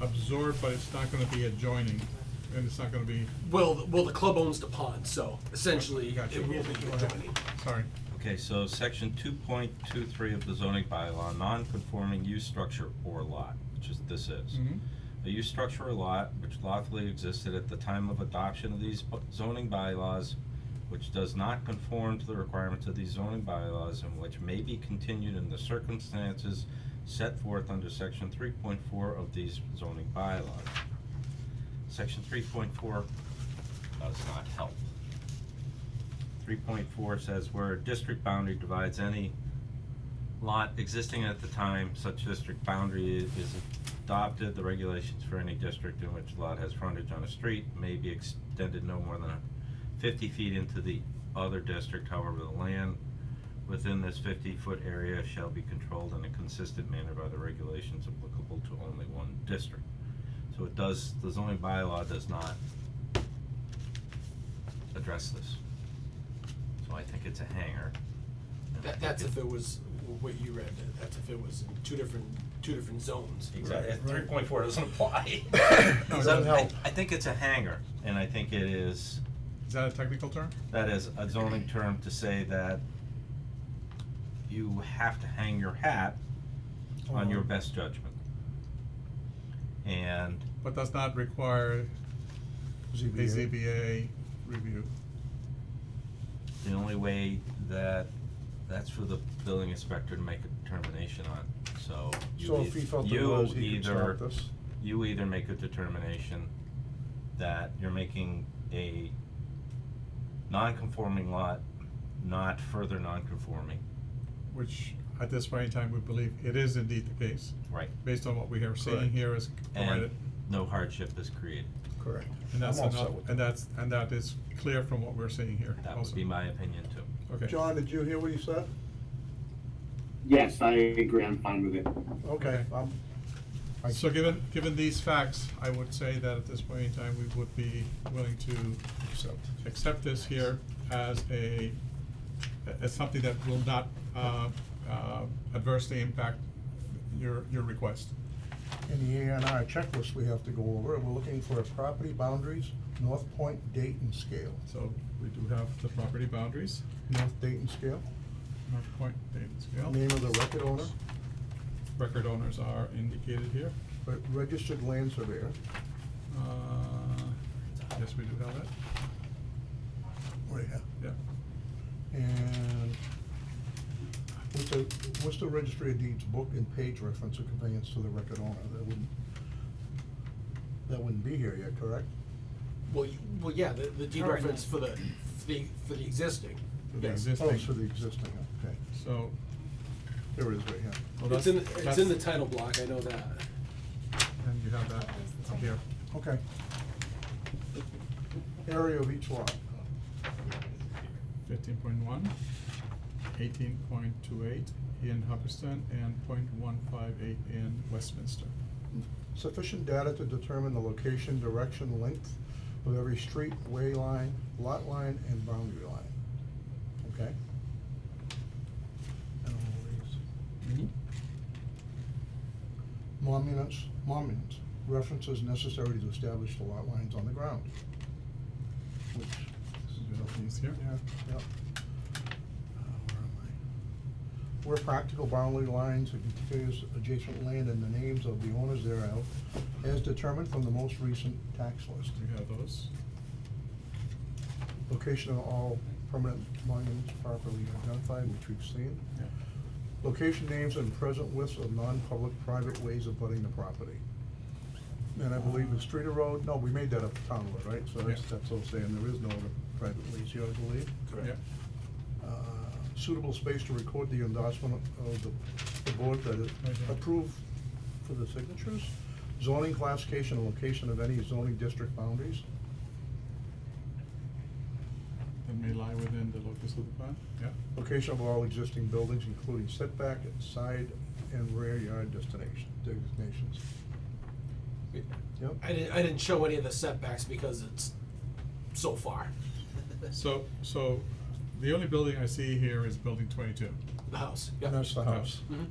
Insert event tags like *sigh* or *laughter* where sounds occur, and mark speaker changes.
Speaker 1: absorbed, but it's not gonna be adjoining, and it's not gonna be,
Speaker 2: Well, th- well, the club owns the pond, so essentially
Speaker 1: Gotcha.
Speaker 2: it will be adjoining.
Speaker 1: sorry.
Speaker 3: Okay, so section two point two three of the zoning bylaw, non-conforming use structure or lot, which is, this is.
Speaker 1: Mhm.
Speaker 3: A use structure or lot which lawfully existed at the time of adoption of these bu- zoning bylaws, which does not conform to the requirements of these zoning bylaws and which may be continued in the circumstances set forth under section three point four of these zoning bylaws. Section three point four does not help. Three point four says where a district boundary divides any lot existing at the time such district boundary i- is adopted, the regulations for any district in which lot has frontage on a street may be extended no more than fifty feet into the other district, however, the land within this fifty-foot area shall be controlled in a consistent manner by the regulations applicable to only one district. So it does, the zoning bylaw does not address this. So I think it's a hanger. and I
Speaker 2: That,
Speaker 3: think
Speaker 2: that's
Speaker 3: it-
Speaker 2: if it was, w- what you read, that- that's if it was in two different, two different zones.
Speaker 3: Exactly, three point four doesn't
Speaker 4: *laughs*
Speaker 3: apply.
Speaker 1: No, it
Speaker 3: So
Speaker 1: doesn't
Speaker 3: I-
Speaker 1: help.
Speaker 3: I think it's a hanger, and I think it is,
Speaker 1: Is that a technical term?
Speaker 3: that is a zoning term to say that you have to hang your hat on your
Speaker 4: Uh-huh.
Speaker 1: Um,
Speaker 3: best judgment. And
Speaker 1: But does not require a
Speaker 4: ZBA.
Speaker 1: ZBA review.
Speaker 3: the only way that, that's for the building inspector to make a determination on, so you
Speaker 4: So if he
Speaker 3: eith-
Speaker 4: felt there
Speaker 3: you
Speaker 4: was, he could
Speaker 3: either,
Speaker 4: stop this.
Speaker 3: you either make a determination that you're making a non-conforming lot not further non-conforming.
Speaker 1: Which at this point in time, we believe it is indeed the case,
Speaker 3: Right.
Speaker 1: based on what we are seeing
Speaker 4: Correct.
Speaker 1: here is
Speaker 3: And
Speaker 1: provided.
Speaker 3: no hardship is created.
Speaker 4: Correct.
Speaker 1: And that's
Speaker 4: I'm all set
Speaker 1: enough,
Speaker 4: with
Speaker 1: and
Speaker 4: that.
Speaker 1: that's, and that is clear from what we're seeing here
Speaker 3: That
Speaker 1: also.
Speaker 3: would be my opinion too.
Speaker 1: Okay.
Speaker 4: John, did you hear what he said?
Speaker 5: Yes, I agree. I'm fine with it.
Speaker 4: Okay,
Speaker 1: Okay.
Speaker 4: I'm, I-
Speaker 1: So given, given these facts, I would say that at this point in time, we would be willing to
Speaker 4: accept.
Speaker 1: accept this here as a, as something that will not uh, uh, adversely impact your, your request.
Speaker 4: In the A and R checklist we have to go over, we're looking for property boundaries, North Point, Dayton scale.
Speaker 1: So we do have the property boundaries,
Speaker 4: North Dayton scale,
Speaker 1: North Point, Dayton
Speaker 4: name
Speaker 1: scale.
Speaker 4: of the record owner,
Speaker 1: Record owners are indicated here.
Speaker 4: re- registered land surveyor,
Speaker 1: Uh, Yes, we do have that,
Speaker 4: right here.
Speaker 1: yeah.
Speaker 4: And what's the, what's the registry of deeds book and page reference of conveyance to the record owner? That wouldn't, that wouldn't be here yet, correct?
Speaker 2: Well, you, well, yeah, the, the deed
Speaker 1: All right.
Speaker 2: reference for the, for the, for the existing.
Speaker 4: For the
Speaker 2: Yes.
Speaker 1: exist-
Speaker 4: Oh,
Speaker 1: Existing.
Speaker 4: it's for the existing, okay.
Speaker 1: So.
Speaker 4: There it is right
Speaker 1: well,
Speaker 4: here.
Speaker 2: It's
Speaker 1: oh, that's-
Speaker 2: in, the- it's
Speaker 1: that's-
Speaker 2: in the title block, I know that.
Speaker 1: And you have that here.
Speaker 4: Okay. Area of each lot.
Speaker 1: Fifteen point one, eighteen point two eight in Hubbardston, and point one five eight in Westminster.
Speaker 4: Sufficient data to determine the location, direction, length of every street, way line, lot line, and boundary line. Okay? And all these. Monuments, monuments, references necessary to establish the lot lines on the ground. Which.
Speaker 1: This is where it is here.
Speaker 4: Yeah, yeah. Uh, where am I? Where practical boundary lines and contiguous adjacent land and the names of the owners thereof as determined from the most recent tax list.
Speaker 1: We have those.
Speaker 4: Location of all permanent monuments properly identified, which we've seen.
Speaker 1: Yeah.
Speaker 4: Location names and present lists of non-public private ways of abutting the property. And I believe the street or road, no, we made that up town road, right? So that's,
Speaker 1: Yeah.
Speaker 4: that's what I'm saying, there is no other private ways here, I believe.
Speaker 1: Yeah.
Speaker 4: Uh, Suitable space to record the endorsement of the, the board that is
Speaker 1: Right here.
Speaker 4: approved for the signatures. Zoning classification and location of any zoning district boundaries.
Speaker 1: That may lie within the locus of the plan, yeah.
Speaker 4: Location of all existing buildings, including setback, side, and rear yard destination, designations. Yep.
Speaker 2: I didn't, I didn't show any of the setbacks because it's so far.
Speaker 1: So, so the only building I see here is building twenty-two.
Speaker 2: The house, yeah.
Speaker 4: And that's the house.
Speaker 2: Mhm.